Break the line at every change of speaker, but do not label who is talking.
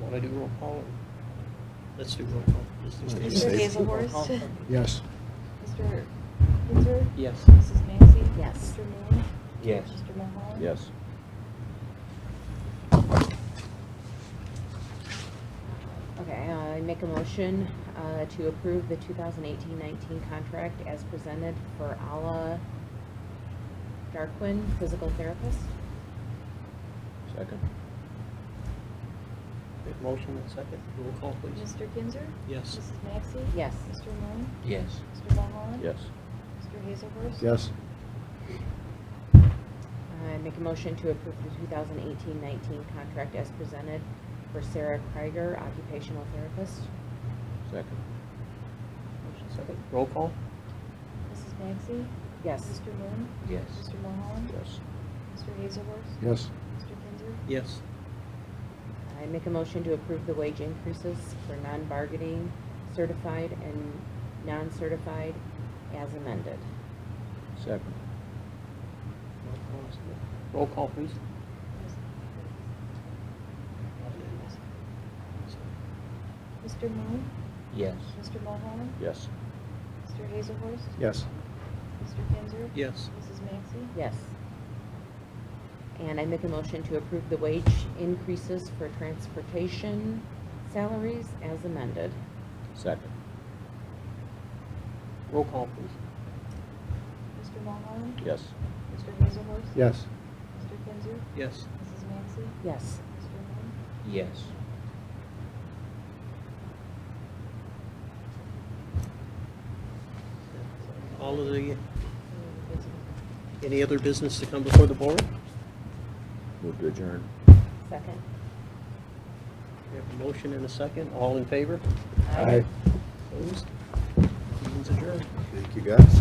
Want to do roll call? or- Let's do roll call. Let's do-
Mr.
Mr. Hazelworth?
Yes.
Mr. Windsor?
Yes.
Mrs. Maxey?
Yes.
Mr. Moon?
Yes.
Mr. Mahoney?
Yes.
Okay, uh, I make a motion uh, to approve the 2018-19 contract as presented for Ala Darquin, physical therapist.
Second.
Okay, Motion and second. Roll call, please.
Mr. Kinzer?
Yes.
Mrs. Maxey?
Yes.
Mr. Moon?
Yes.
Mr. Mahoney?
Yes.
Mr. Hazelworth?
Yes.
I make a motion to approve the 2018-19 contract as presented for Sarah Krieger, occupational therapist.
Second.
Motion second. Roll call?
Mrs. Maxey?
Yes.
Mr. Moon?
Yes.
Mr. Mahoney?
Yes.
Mr. Hazelworth?
Yes.
Mr. Kinzer?
Yes.
I make a motion to approve the wage increases for non-bargaining certified and non-certified as amended.
Second.
Roll call is good. Roll call, please.
Mr. Moon?
Yes.
Mr. Mahoney?
Yes.
Mr. Hazelworth?
Yes.
Mr. Kinzer?
Yes.
Mrs. Maxey?
Yes. And I make a motion to approve the wage increases for transportation salaries as amended.
Second.
Roll call, please.
Mr. Mahoney?
Yes.
Mr. Hazelworth?
Yes.
Mr. Kinzer?
Yes.
Mrs. Maxey?
Yes.
Mr. Moon?
Yes.
All of the, any other business to come before the board?
Move to adjourn.
Second.
We have a motion and a second. All in favor? Opposed? Meeting's adjourned.
Thank you, guys.